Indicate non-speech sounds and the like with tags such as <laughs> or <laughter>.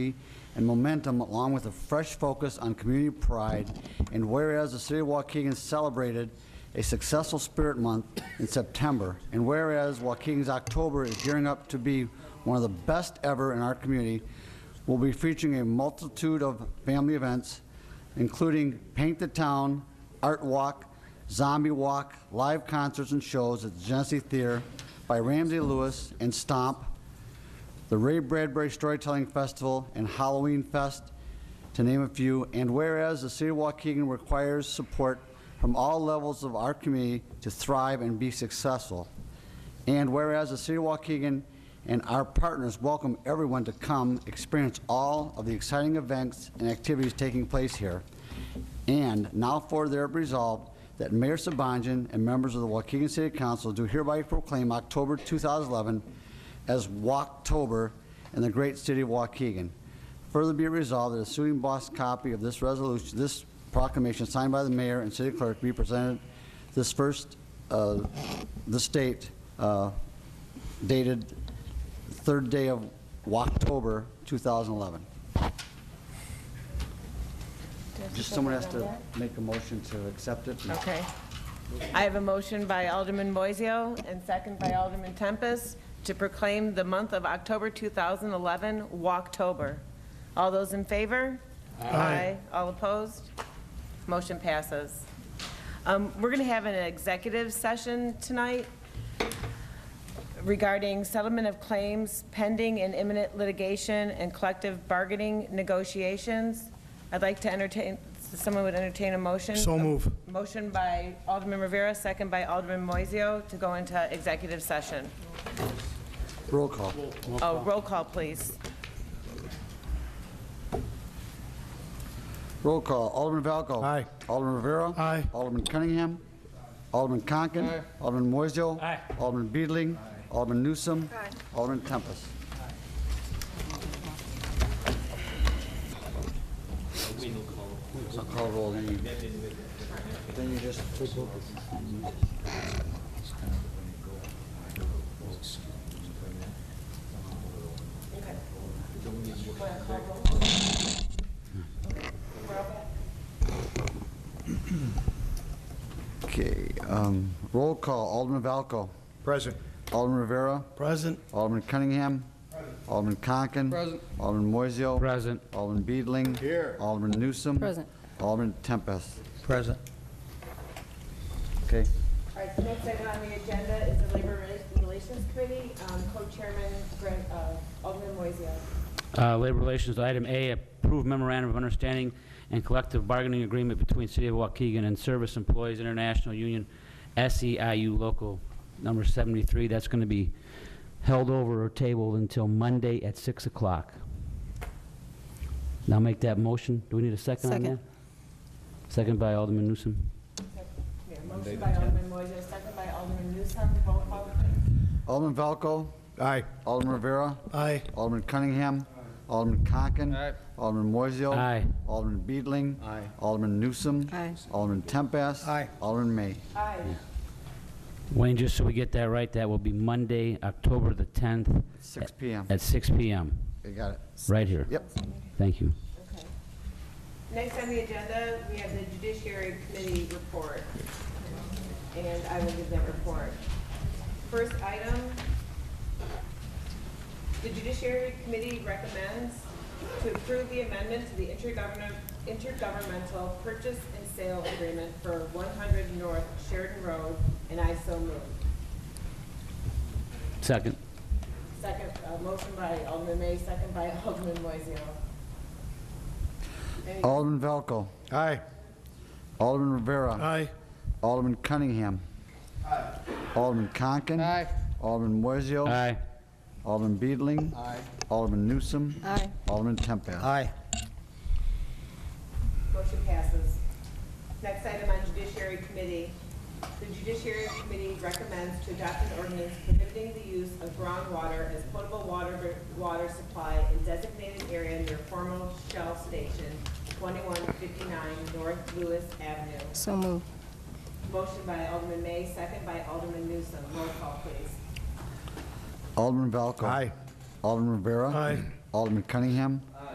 and momentum, along with a fresh focus on community pride. And whereas the City of Waukegan celebrated a successful Spirit Month in September, and whereas Waukegan's October is gearing up to be one of the best ever in our community, we'll be featuring a multitude of family events, including Paint the Town, Art Walk, Zombie Walk, live concerts and shows at the Genesee Theater by Ramsey Lewis and Stomp, the Ray Bradbury Storytelling Festival and Halloween Fest, to name a few. And whereas the City of Waukegan requires support from all levels of our community to thrive and be successful. And whereas the City of Waukegan and our partners welcome everyone to come experience all of the exciting events and activities taking place here. And now for their resolved that Mayor Sabanjan and members of the Waukegan City Council do hereby proclaim October 2011 as Walktober in the great city of Waukegan. Further be it resolved that a suing boss copy of this resolution, this proclamation signed by the mayor and city clerk be presented this first, uh, this date, uh, dated third day of Walktober 2011. Just someone has to make a motion to accept it. Okay. I have a motion by Alderman Moiseo and second by Alderman Tempest to proclaim the month of October 2011 Walktober. All those in favor? Aye. All opposed? Motion passes. Um, We're going to have an executive session tonight regarding settlement of claims pending and imminent litigation and collective bargaining negotiations. I'd like to entertain, someone would entertain a motion. So move. Motion by Alderman Rivera, second by Alderman Moiseo to go into executive session. Roll call. Oh, roll call, please. Roll call. Alderman Valco. Aye. Alderman Rivera. Aye. Alderman Cunningham. Alderman Conken. Alderman Moiseo. Aye. Alderman Beedling. Alderman Newsom. Alderman Tempest. I'll call roll, then you, then you just take vote. Okay, um, roll call. Alderman Valco. Present. Alderman Rivera. Present. Alderman Cunningham. Alderman Conken. Alderman Moiseo. Present. Alderman Beedling. Here. Alderman Newsom. Present. Alderman Tempest. Present. Okay. All right, the next item on the agenda is the Labor Rela- Relations Committee, um, co-chairman Brent, uh, Alderman Moiseo. Uh, Labor Relations, item A, approve memorandum of understanding and collective bargaining agreement between City of Waukegan and Service Employees International Union, SEIU Local Number 73. That's going to be held over or tabled until Monday at 6 o'clock. Now make that motion. Do we need a second on Second. that? Second by Alderman Newsom. Yeah, Motion by Alderman Moiseo, second by Alderman Newsom, roll call, please. Alderman Valco. Aye. Alderman Rivera. Aye. Alderman Cunningham. Alderman Conken. Alderman Moiseo. Aye. Alderman Beedling. Alderman Newsom. Aye. Alderman Tempest. Aye. Alderman May. Aye. Wayne, just so we get that right, that will be Monday, October the 10th. 6 PM. At 6 PM, You got it. right here. Yep. Thank you. Okay. Next on the agenda, we have the Judiciary Committee report, and I will give that report. First item, the Judiciary Committee recommends to approve the amendment to the intergovernment- intergovernmental purchase and sale agreement for 100 North Sheridan Road, and I so move. Second. Second, uh, motion by Alderman May, second by <laughs> Alderman Moiseo. Any- Alderman Valco. Aye. Alderman Rivera. Aye. Alderman Cunningham. Alderman Conken. Alderman Moiseo. Aye. Alderman Beedling. Alderman Newsom. Aye. Alderman Tempest. Aye. Motion passes. Next item on Judiciary Committee. The Judiciary Committee recommends to adopt an ordinance prohibiting the use of groundwater as potable water, water supply in designated area near former Shell Station, 2159 North Lewis Avenue. So move. Motion by Alderman May, second by Alderman Newsom. Roll call, please. Alderman Valco. Aye. Alderman Rivera. Aye. Alderman Cunningham.